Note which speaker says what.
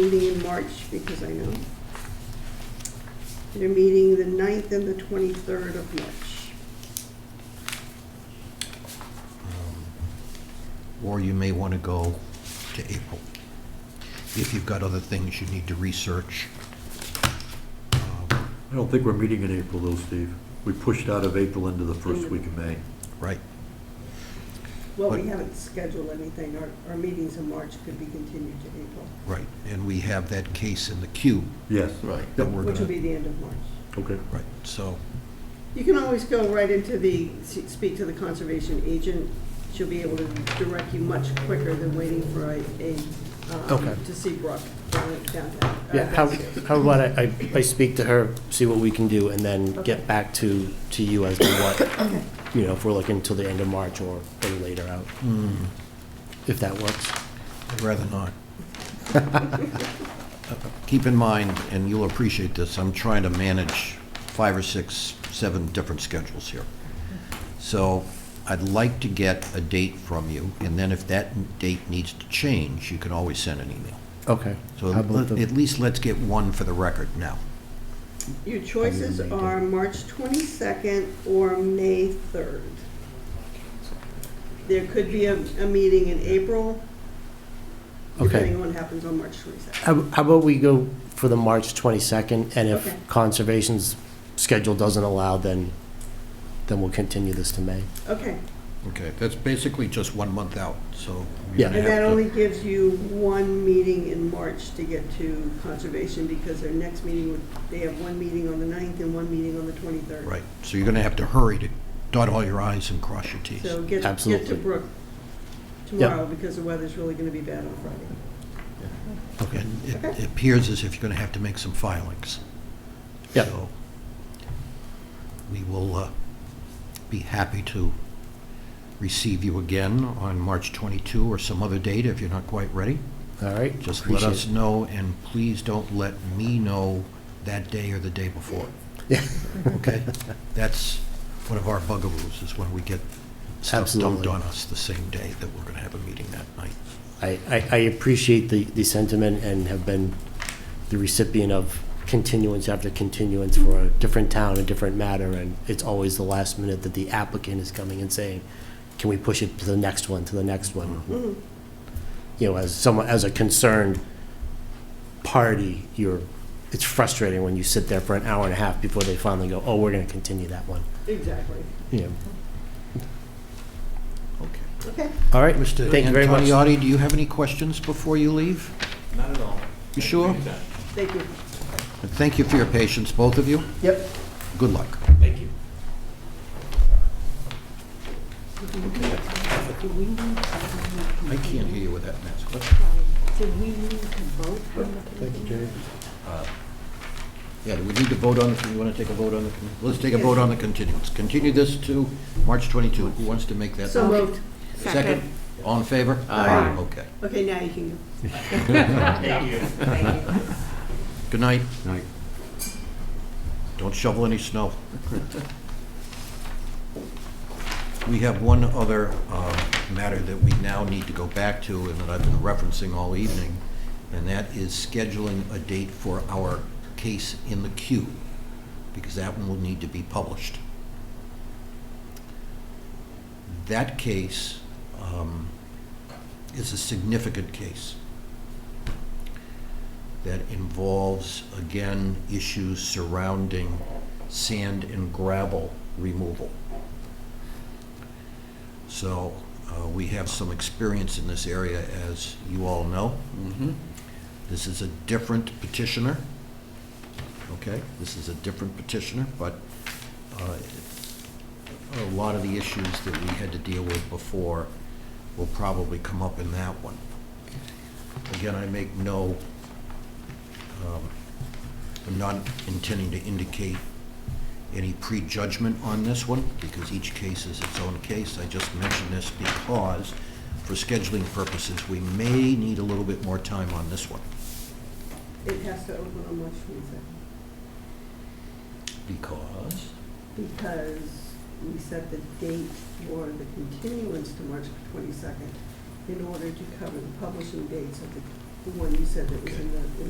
Speaker 1: meeting in March, because I know. They're meeting the 9th and the 23rd of March.
Speaker 2: Or you may want to go to April, if you've got other things you need to research. um,
Speaker 3: I don't think we're meeting in April though, Steve. We pushed out of April into the first week of May.
Speaker 2: Right?
Speaker 1: Well, we
Speaker 2: What-
Speaker 1: haven't scheduled anything, our, our meetings in March could be continued to April,
Speaker 2: Right, and we have that case in the queue
Speaker 3: Yes.
Speaker 4: Right.
Speaker 2: that we're
Speaker 1: which will
Speaker 2: gonna,
Speaker 1: be the end of March.
Speaker 3: Okay.
Speaker 2: right, so,
Speaker 1: You can always go right into the, speak to the conservation agent, she'll be able to direct you much quicker than waiting for a, a,
Speaker 4: Okay.
Speaker 1: um, to see Brock down- downtown. uh,
Speaker 4: Yeah, how,
Speaker 1: downstairs.
Speaker 4: how about I, I- I speak to her, see what we can do, and then get back to, to you as to what, you know, if we're looking till the end of March or or later out,
Speaker 2: hmm,
Speaker 4: if that works.
Speaker 2: I'd rather not. Keep in mind, and you'll appreciate this, I'm trying to manage five or six, seven different schedules here. So I'd like to get a date from you, and then if that date needs to change, you can always send an email.
Speaker 4: Okay.
Speaker 2: So
Speaker 4: How about
Speaker 2: let-
Speaker 4: the-
Speaker 2: at least let's get one for the record now.
Speaker 1: Your choices
Speaker 4: Amendment.
Speaker 1: are March 22nd or May 3rd. There could be a, a meeting in April,
Speaker 4: Okay.
Speaker 1: depending on what happens on March 22nd.
Speaker 4: How how about we go for the March 22nd, and
Speaker 1: Okay.
Speaker 4: if Conservation's schedule doesn't allow, then, then we'll continue this to May.
Speaker 1: Okay,
Speaker 2: Okay, that's basically just one month out, so.
Speaker 4: Yeah.
Speaker 2: you're
Speaker 1: and
Speaker 2: gonna
Speaker 1: that
Speaker 2: have to-
Speaker 1: only gives you one meeting in March to get to conservation, because their next meeting would, they have one meeting on the 9th and one meeting on the 23rd.
Speaker 2: Right, so you're gonna have to hurry to dot all your i's and cross your t's.
Speaker 1: So get, get to
Speaker 4: Absolutely.
Speaker 1: Brook tomorrow, because the weather's really going to be bad on Friday.
Speaker 2: And it
Speaker 1: Okay.
Speaker 2: appears as if you're gonna have to make some filings.
Speaker 4: Yeah.
Speaker 2: So We will uh, be happy to receive you again on March 22 or some other date if you're not quite ready.
Speaker 4: All right?
Speaker 2: Just let us
Speaker 4: Appreciate
Speaker 2: know, and please don't let me know that day or the day before.
Speaker 4: Yeah.
Speaker 2: Okay? That's one of our bugaboos, is when we get stuff dumped
Speaker 4: Absolutely.
Speaker 2: on us the same day that we're going to have a meeting that night.
Speaker 4: it. I, I, I appreciate the, the sentiment and have been the recipient of continuance after continuance for a different town, a different matter, and it's always the last minute that the applicant is coming and saying, can we push it to the next one, to the next one? Mm-hmm.
Speaker 1: Mhm.
Speaker 4: you know, as someone, as a concerned party, you're, it's frustrating when you sit there for an hour and a half before they finally go, oh, we're gonna continue that one,
Speaker 1: Exactly.
Speaker 4: you know.
Speaker 2: Okay.
Speaker 1: Okay.
Speaker 4: All right,
Speaker 2: Mr.
Speaker 4: thank you very much.
Speaker 2: Antoniadi, do you have any questions before you leave?
Speaker 5: Not at all.
Speaker 2: You sure?
Speaker 1: Thank you.
Speaker 2: And Thank you for your patience, both of you.
Speaker 4: Yep.
Speaker 2: Good luck.
Speaker 5: Thank you.
Speaker 6: Do we need to
Speaker 2: I
Speaker 6: vote?
Speaker 2: can't hear you with that mask.
Speaker 6: Did we need to vote on the committee?
Speaker 2: Uh, Yeah, do we need to vote on, the- you want to take a vote on the, let's take a vote on the continuance. Continue this to March 22. Who wants to make that?
Speaker 1: So moved.
Speaker 2: Second? All in favor?
Speaker 1: Aye.
Speaker 2: Okay.
Speaker 1: Okay, now you can go.
Speaker 5: Thank you.
Speaker 6: Thank you.
Speaker 2: Good night.
Speaker 3: Night.
Speaker 2: Don't shovel any snow. We have one other uh, matter that we now need to go back to and that I've been referencing all evening, and that is scheduling a date for our case in the queue, because that one will need to be published. That case um, is a significant case that involves, again, issues surrounding sand and gravel removal. So uh, we have some experience in this area, as you all know. This is a different petitioner, okay? This is a different petitioner, but uh, a lot of the issues that we had to deal with before will probably come up in that one. Again, I make no um, I'm not intending to indicate any prejudgment on this one, because each case is its own case. I just mention this because, for scheduling purposes, we may need a little bit more time on this one,
Speaker 1: It has to open on March twenty-second,
Speaker 2: because,
Speaker 1: because we set the date for the continuance to March twenty-second in order to cover the publishing dates of the the one you said that was in the, in the